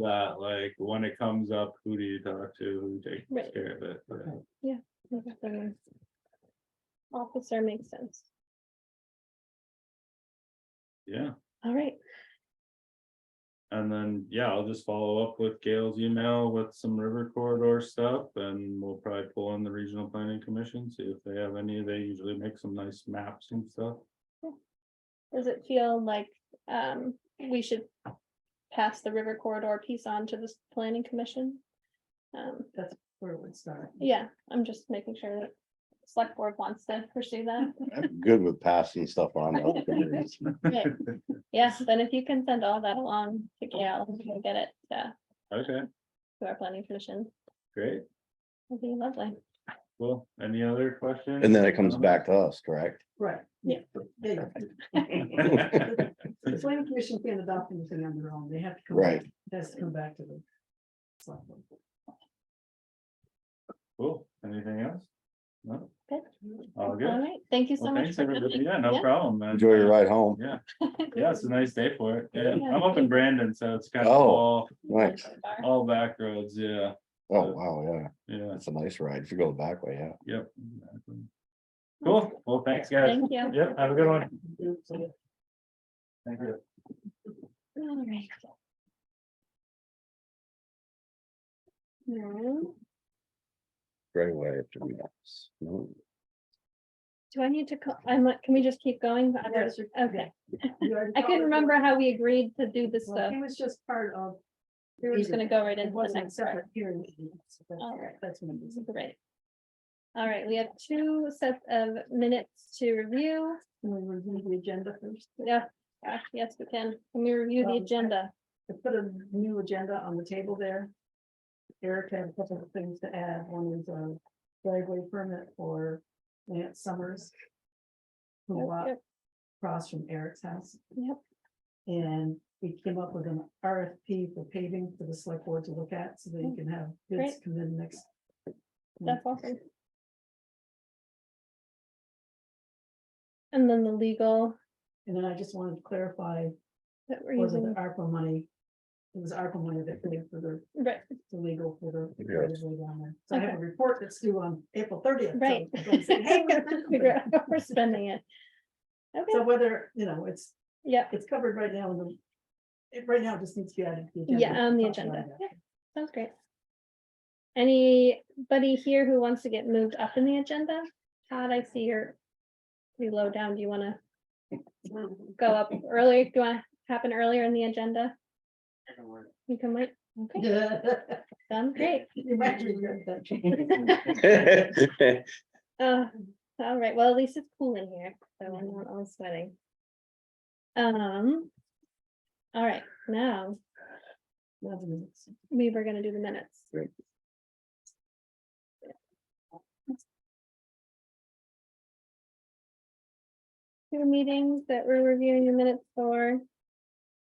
that, like, when it comes up, who do you talk to, who takes Right. care of it? but- Look at the Officer makes sense. Yeah, All right, and then, yeah, I'll just follow up with Gail's email with some river corridor stuff and we'll probably pull in the regional planning commission, see if they have any, they usually make some nice maps and stuff. does it feel like um we should pass the river corridor piece on to this planning commission? Um, That's where it would start. yeah, I'm just making sure that select board wants to pursue that. I'm good with passing stuff on. to other committees. Right. Yeah, then if you can send all that along to Gail, we can get it to Okay, to our planning commission, great, it'd be lovely. well, any other questions? And then it comes back to us, correct? Right. Yeah. They, the planning commission can't adopt anything on their own. They have to come. Right. back- it Has to come back to the. select board. Cool, anything else? No, Good. all All good. right, thank you so Well, much. thanks, for everybody, coming. yeah, no Yeah. problem. man. Enjoy your ride home. Yeah, yeah, it's a nice day for it, yeah, Yeah. I'm up in Brandon, so it's kind of Oh. all, Nice. all back roads, yeah, Oh, wow, yeah. yeah, That's a nice ride. If you go the back way, yeah. yep. exactly. Cool, well, thanks, guys. Thank you. Yep, have a good one. Thank you. All right. Now, Great way to be nice. No, do I need to, co- I'm, not- can we just keep going? But I'm not- Yes, you- Okay, You already I couldn't followed it. remember how we agreed to do this Well, stuff. It was just part of. We're just gonna go right It into the wasn't a next part. separate hearing. meeting, so that's- All right. That's what it is. Great. All right, we have two sets of minutes to review. Can we review the agenda first? Yeah, gosh, yes, we can. Can we review the Um, agenda? I put a new agenda on the table there. Eric had a couple of things to add. One is a driveway permit for Lance Summers. Who Yep, walked yep, across from Eric's house. Yep. And we came up with an RFP for paving for the select board to look at so that you can have bids Mm, Great. come in next. That's awesome. And then the legal And then I just wanted to clarify, that we're was it using, ARPA money? It was ARPA money that paid for the right, the legal for the. Yes. driveway down there. So I have a report that's due on April thirtieth. Right. Figure out how We're spending it. So Okay, whether, you know, it's, yeah, it's covered right now in the. It right now just needs to be added. to the agenda. yeah, on the Talk about agenda. that. Yeah, Sounds great. Anybody here who wants to get moved up in the agenda? Todd, I see you're pretty low down. Do you want to go up earlier? Do you want to happen earlier in the agenda? You can wait. Okay, done. Great. You might regret that change. It's Uh, all right, well, at least it's cool in here, so I'm not all sweating. Um. All right, now Love minutes. we were gonna do the minutes. Great. Two meetings that we're reviewing the minutes for.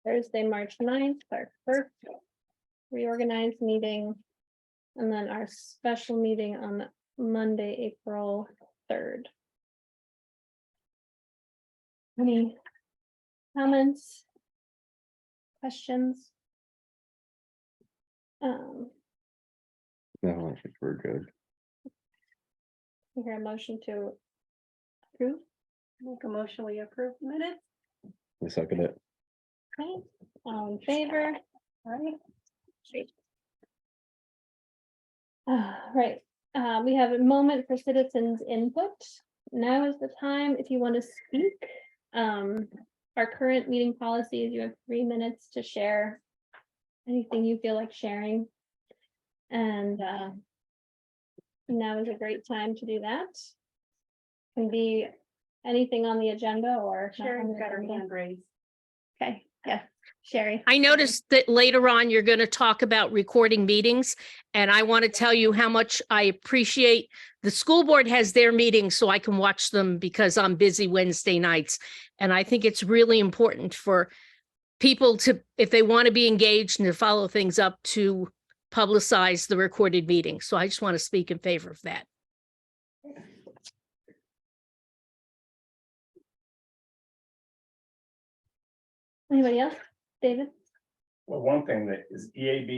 Thursday, March 9th, our first reorganized meeting. And then our special meeting on Monday, April third. Any comments? Questions? Um, No, I think we're good. I hear a motion to approve. Make a motion, we approve the minutes, We suck at it. Okay, all in favor? right? Great. Uh, right, uh, we have a moment for citizens input. Now is the time if you want to speak. Um, our current meeting policy is you have three minutes to share anything you feel like sharing. And, uh, now is a great time to do that. Can be anything on the agenda or. not on Sharon's the got her agenda. hand raised. Okay, yeah, Sherry. I noticed that later on, you're going to talk about recording meetings. And I want to tell you how much I appreciate the school board has their meetings so I can watch them because I'm busy Wednesday nights. And I think it's really important for people to, if they want to be engaged and to follow things up, to publicize the recorded meeting. So I just want to speak in favor of that. Anybody else? David? Well, one thing that is E EAB